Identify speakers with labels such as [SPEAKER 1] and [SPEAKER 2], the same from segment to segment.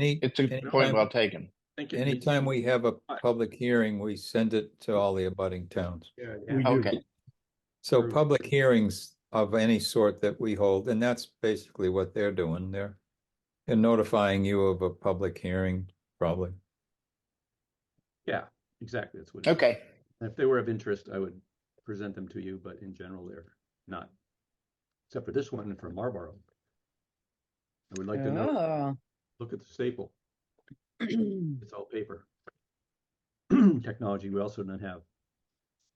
[SPEAKER 1] Any,
[SPEAKER 2] It's a good point
[SPEAKER 1] Anytime-
[SPEAKER 2] well taken.
[SPEAKER 3] Thank you.
[SPEAKER 1] anytime we have a
[SPEAKER 3] Aye.
[SPEAKER 1] public hearing, we send it to all the abutting towns.
[SPEAKER 3] Yeah, yeah.
[SPEAKER 4] We do.
[SPEAKER 2] Okay,
[SPEAKER 1] So
[SPEAKER 4] True.
[SPEAKER 1] public hearings of any sort that we hold, and that's basically what they're doing. They're they're notifying you of a public hearing, probably.
[SPEAKER 3] Yeah, exactly, that's what. it is.
[SPEAKER 2] okay,
[SPEAKER 3] If they were of interest, I would present them to you, but in general, they're not. Except for this one for Marlboro. I would like to
[SPEAKER 2] Ah.
[SPEAKER 3] know,
[SPEAKER 5] Oh.
[SPEAKER 3] look at the staple, it's all paper. Technology we also don't have.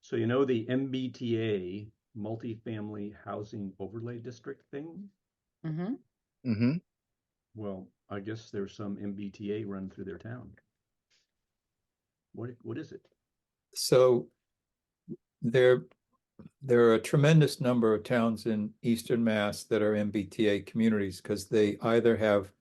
[SPEAKER 3] So you know the MBTA, multifamily housing overlay district thing?
[SPEAKER 5] Mhm.
[SPEAKER 2] hmm
[SPEAKER 3] Well, I guess there's some MBTA run through their town. What, what is it?
[SPEAKER 1] So there, there are a tremendous number of towns in eastern Mass that are MBTA communities because they either have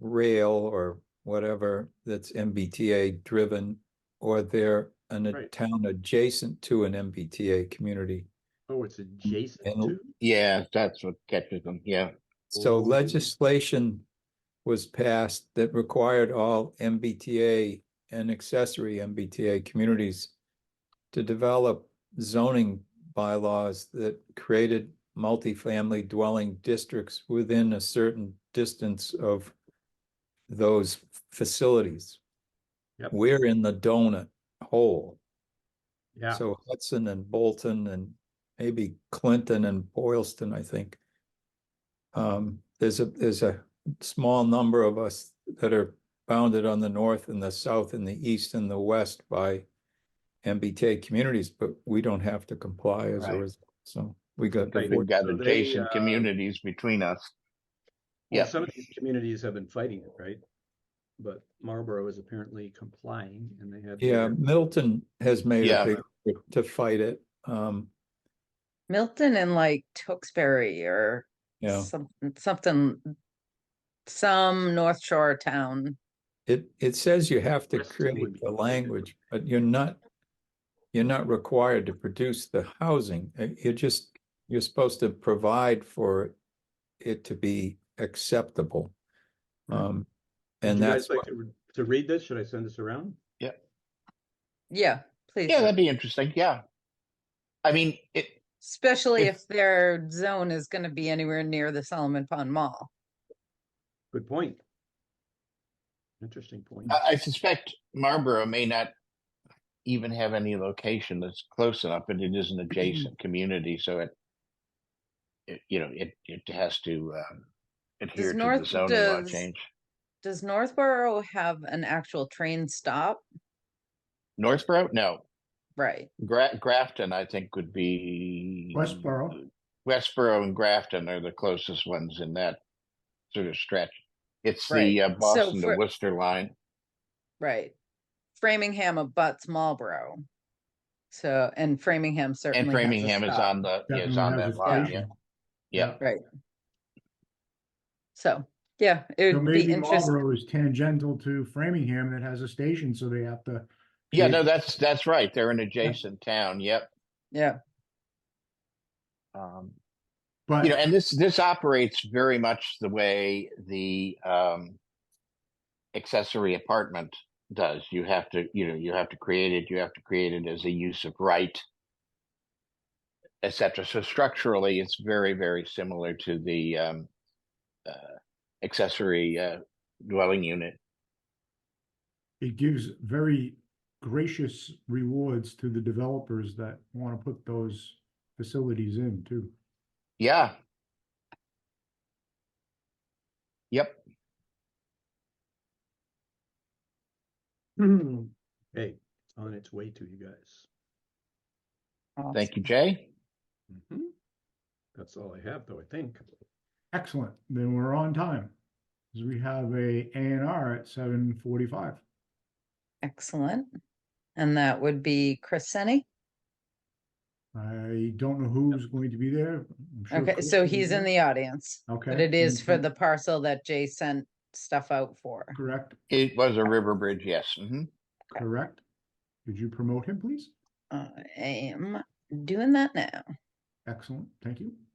[SPEAKER 1] rail or whatever that's MBTA driven, or they're an, a
[SPEAKER 3] Right.
[SPEAKER 1] town adjacent to an MBTA community.
[SPEAKER 3] Oh, it's adjacent
[SPEAKER 1] And-
[SPEAKER 3] to?
[SPEAKER 2] yeah, that's what catches them, yeah.
[SPEAKER 1] So
[SPEAKER 3] Ooh.
[SPEAKER 1] legislation was passed that required all MBTA and accessory MBTA communities to develop zoning bylaws that created multifamily dwelling districts within a certain distance of those facilities.
[SPEAKER 3] Yep.
[SPEAKER 1] We're in the donut hole.
[SPEAKER 3] Yeah.
[SPEAKER 1] So Hudson and Bolton and maybe Clinton and Boylston, I think. Um, there's a, there's a small number of us that are bounded on the north and the south and the east and the west by MBTA communities, but we don't have to comply as a
[SPEAKER 2] Right.
[SPEAKER 1] result. So we got.
[SPEAKER 3] Right.
[SPEAKER 2] We've got
[SPEAKER 3] So they,
[SPEAKER 2] adjacent
[SPEAKER 3] uh,
[SPEAKER 2] communities between us.
[SPEAKER 3] Well,
[SPEAKER 2] Yeah.
[SPEAKER 3] some of these communities have been fighting it, right? But Marlboro is apparently complying and they have.
[SPEAKER 1] Yeah,
[SPEAKER 3] their-
[SPEAKER 1] Milton has made
[SPEAKER 2] Yeah.
[SPEAKER 1] a big effort to fight it. Um,
[SPEAKER 5] Milton and like Tewksbury or
[SPEAKER 1] yeah,
[SPEAKER 5] something, something, some North Shore town.
[SPEAKER 1] it, it says you have to
[SPEAKER 3] Rest would
[SPEAKER 1] create
[SPEAKER 3] be
[SPEAKER 1] the
[SPEAKER 3] good.
[SPEAKER 1] language, but you're not, you're not required to produce the housing. Uh, You're just, you're supposed to provide for it to be acceptable. Um,
[SPEAKER 3] Mm-hmm. Would
[SPEAKER 1] and
[SPEAKER 3] you guys
[SPEAKER 1] that's,
[SPEAKER 3] like
[SPEAKER 1] what-
[SPEAKER 3] To re- to read this, should I send this around?
[SPEAKER 5] Yeah, please.
[SPEAKER 2] Yeah, that'd be interesting, yeah. I mean, it,
[SPEAKER 5] Especially
[SPEAKER 2] if-
[SPEAKER 5] if their zone is gonna be anywhere near the Solomon Pond Mall.
[SPEAKER 3] Good point. Interesting point.
[SPEAKER 2] I, I suspect Marlboro may not even have any location that's close enough, but it is an
[SPEAKER 3] Mm-hmm.
[SPEAKER 2] adjacent community, so it, it, you know, it, it has to, um, adhere to the
[SPEAKER 5] North-
[SPEAKER 2] zoning law
[SPEAKER 5] does-
[SPEAKER 2] change.
[SPEAKER 5] Does Northborough have an actual train stop?
[SPEAKER 2] Northborough? No.
[SPEAKER 5] Right,
[SPEAKER 2] Gra- Grafton, I think, would be.
[SPEAKER 4] Westboro.
[SPEAKER 2] Westboro and Grafton are the closest ones in that sort of stretch. It's
[SPEAKER 5] Right.
[SPEAKER 2] the uh,
[SPEAKER 5] So
[SPEAKER 2] Boston to
[SPEAKER 5] for-
[SPEAKER 2] Worcester line.
[SPEAKER 5] right. Framingham abuts Marlboro. So, and Framingham certainly.
[SPEAKER 2] And
[SPEAKER 5] has a
[SPEAKER 2] Framingham is
[SPEAKER 5] stop.
[SPEAKER 2] on the, yeah, is on
[SPEAKER 4] Definitely has
[SPEAKER 2] that
[SPEAKER 4] a
[SPEAKER 2] line, yeah.
[SPEAKER 4] station.
[SPEAKER 2] Yeah.
[SPEAKER 5] So, yeah, it
[SPEAKER 4] So
[SPEAKER 5] would be
[SPEAKER 4] maybe
[SPEAKER 5] interesting.
[SPEAKER 4] Marlboro is tangential to Framingham that has a station, so they have to.
[SPEAKER 2] Yeah,
[SPEAKER 4] create-
[SPEAKER 2] no, that's, that's right. They're an adjacent town, yep.
[SPEAKER 5] Yeah.
[SPEAKER 2] Um,
[SPEAKER 4] But
[SPEAKER 2] you know, and this, this operates very much the way the, um, accessory apartment does. You have to, you know, you have to create it, you have to create it as a use of right, et cetera. So structurally, it's very, very similar to the, um, uh, accessory, uh, dwelling unit.
[SPEAKER 4] it gives very gracious rewards to the developers that want to put those facilities in too.
[SPEAKER 2] Yeah. Yep.
[SPEAKER 3] Hey, it's on its way to you guys.
[SPEAKER 2] Thank you, Jay.
[SPEAKER 3] Mhm. That's all I have though, I think.
[SPEAKER 4] Excellent. Then we're on time. 'Cause we have a A and R at seven forty-five.
[SPEAKER 5] Excellent. And that would be Chris Senney.
[SPEAKER 4] I don't know who's going to be there. I'm sure
[SPEAKER 5] Okay,
[SPEAKER 4] Chris
[SPEAKER 5] so
[SPEAKER 4] will be
[SPEAKER 5] he's in
[SPEAKER 4] there.
[SPEAKER 5] the audience,
[SPEAKER 4] Okay.
[SPEAKER 5] but it is for
[SPEAKER 4] Mhm.
[SPEAKER 5] the parcel that Jay sent stuff out for.
[SPEAKER 4] Correct,
[SPEAKER 2] It was a river bridge, yes. hmm
[SPEAKER 4] correct. Could you promote him, please?
[SPEAKER 5] I am doing that now.
[SPEAKER 4] Excellent, thank you.